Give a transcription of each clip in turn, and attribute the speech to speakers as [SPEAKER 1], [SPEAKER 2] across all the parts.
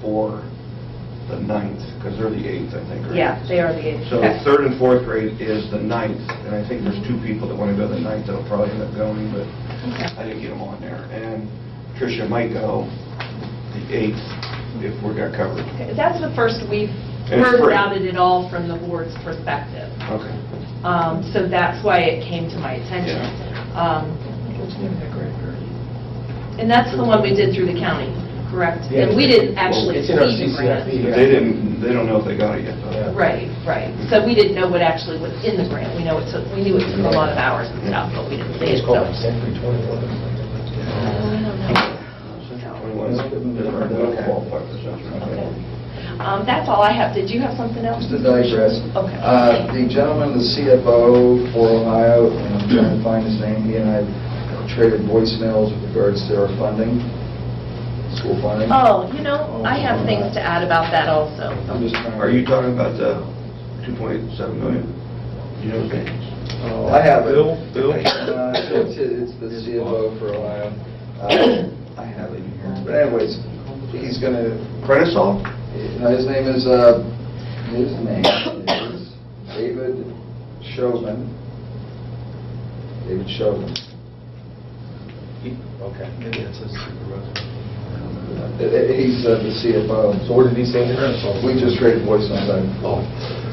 [SPEAKER 1] for the ninth, because they're the eighth, I think, right?
[SPEAKER 2] Yeah, they are the eighth.
[SPEAKER 1] So
[SPEAKER 2] Okay.
[SPEAKER 1] third and fourth grade is the ninth, and I think there's two people that want to go the ninth that'll probably end up going, but
[SPEAKER 2] Okay.
[SPEAKER 1] I didn't get them on there. And Tricia might go the eighth if we got covered.
[SPEAKER 3] That's the first we've
[SPEAKER 1] And it's
[SPEAKER 3] heard
[SPEAKER 1] free.
[SPEAKER 3] about it at all from the board's perspective.
[SPEAKER 1] Okay.
[SPEAKER 3] Um, So that's why it came to my attention. Um, And that's the one we did through the county, correct?
[SPEAKER 4] Yeah.
[SPEAKER 3] And we didn't actually
[SPEAKER 4] It's in our
[SPEAKER 3] see the grant.
[SPEAKER 4] CCFD.
[SPEAKER 1] But They didn't, they don't know if they got it yet,
[SPEAKER 4] Yeah.
[SPEAKER 1] though.
[SPEAKER 3] Right, right. So we didn't know what actually was in the grant. We know it took, we knew it took a lot of hours and stuff, but we didn't see it,
[SPEAKER 4] It's called
[SPEAKER 3] so.
[SPEAKER 4] like Century 21 or something.
[SPEAKER 3] I don't know.
[SPEAKER 1] Central 21 's different. They'll qualify for Central.
[SPEAKER 3] Um, That's all I have. Did you have something else?
[SPEAKER 5] Just to digress,
[SPEAKER 3] Okay.
[SPEAKER 5] uh, the gentleman, the CFO for Ohio, and I'm trying to find his name, he and I traded voicemails with regards to our funding, school funding.
[SPEAKER 3] Oh, you know, I have things to add about that also.
[SPEAKER 5] I'm just trying to-
[SPEAKER 1] Are you talking about the 2.7 million? You know the names?
[SPEAKER 5] Oh, I have it.
[SPEAKER 1] Bill, Bill?
[SPEAKER 5] Uh, It's it's the CFO for Ohio. Uh, I have it here. But anyways, he's gonna,
[SPEAKER 1] Renisol?
[SPEAKER 5] no, his name is, uh, his name is David Chauvin. David Chauvin.
[SPEAKER 4] Okay. Maybe that's his supervisor.
[SPEAKER 5] Uh, He's uh, the CFO.
[SPEAKER 4] So where did he say the grant?
[SPEAKER 5] We just traded voice on that.
[SPEAKER 4] Oh.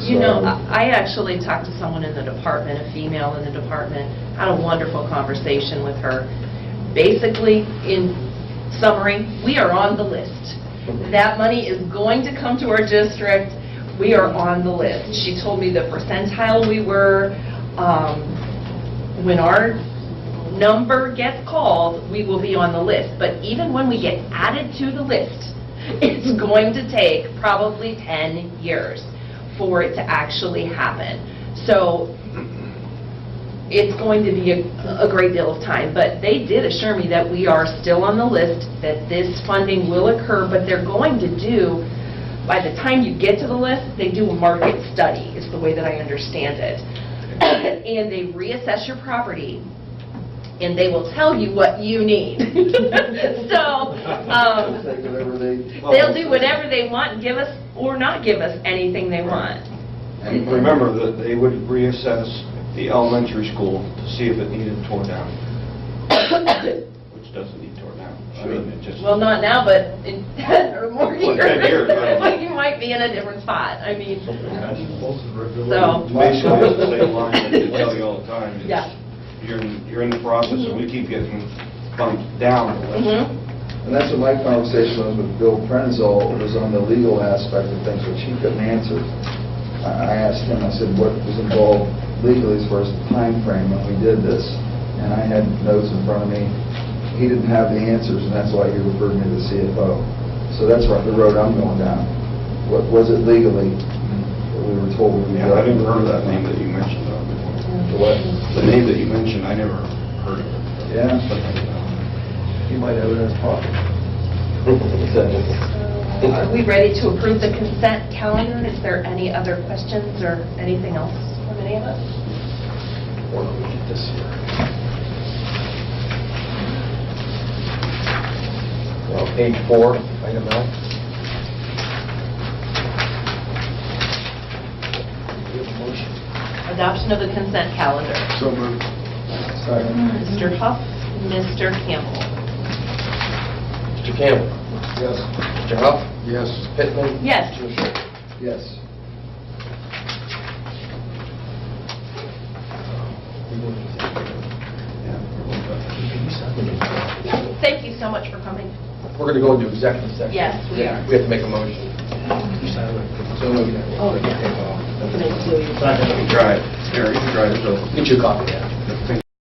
[SPEAKER 3] You know,
[SPEAKER 5] So-
[SPEAKER 3] I I actually talked to someone in the department, a female in the department, had a wonderful conversation with her. Basically, in summary, we are on the list. That money is going to come to our district. We are on the list. She told me the percentile we were. um, When our number gets called, we will be on the list. But even when we get added to the list, it's going to take probably 10 years for it to actually happen. So it's going to be a a great deal of time, but they did assure me that we are still on the list, that this funding will occur, but they're going to do, by the time you get to the list, they do a market study, is the way that I understand it. And they reassess your property, and they will tell you what you need. So, um,
[SPEAKER 5] Take whatever they-
[SPEAKER 3] They'll do whatever they want, and give us or not give us anything they want.
[SPEAKER 1] And remember that they would reassess the elementary school to see if it needed torn down, which doesn't need torn down. I mean, it just,
[SPEAKER 3] Well, not now, but in 10 or more
[SPEAKER 1] Well, 10 years,
[SPEAKER 3] years,
[SPEAKER 1] right.
[SPEAKER 3] you might be in a different spot. I mean,
[SPEAKER 4] So.
[SPEAKER 3] So-
[SPEAKER 1] basically, it's the same line that they tell you all the time. It's-
[SPEAKER 3] Yeah.
[SPEAKER 1] You're, in- you're in the process, and we keep getting bumped down the list.
[SPEAKER 3] mhm.
[SPEAKER 5] And that's what my conversation was with Bill Prenzel, was on the legal aspect of things, which he couldn't answer. I I asked him, I said, what was involved legally as far as the timeframe when we did this? And I had notes in front of me. He didn't have the answers, and that's why he referred me to the CFO. So that's right, the road I'm going down. What was it legally that we were told? we
[SPEAKER 1] Yeah, I never heard of that name that you mentioned uh, before.
[SPEAKER 5] The What?
[SPEAKER 1] The name that you mentioned, I never heard of it.
[SPEAKER 5] Yeah.
[SPEAKER 1] But, uh,
[SPEAKER 5] He might have it in his pocket.
[SPEAKER 3] Are we ready to approve the consent calendar? Is there any other questions or anything else from any of us?
[SPEAKER 4] Or we get this here. Well, page four, item L. Do you have a motion?
[SPEAKER 3] Adoption of the consent calendar.
[SPEAKER 5] So moved. Second.
[SPEAKER 3] Mr. Huff, Mr. Campbell.
[SPEAKER 4] Mr. Campbell?
[SPEAKER 5] Yes.
[SPEAKER 4] Mr. Huff?
[SPEAKER 5] Yes.
[SPEAKER 4] Mr. Pittman?
[SPEAKER 3] Yes.
[SPEAKER 4] Mr. Schultz?
[SPEAKER 5] Yes.
[SPEAKER 4] Uh,
[SPEAKER 3] Thank you so much for coming.
[SPEAKER 4] We're going to go into executive session.
[SPEAKER 3] Yes, we are.
[SPEAKER 4] We have to make a motion. So moved.
[SPEAKER 2] Oh, yeah.
[SPEAKER 4] Second.
[SPEAKER 1] Drive, Eric, drive, so.
[SPEAKER 4] Get you a copy, yeah.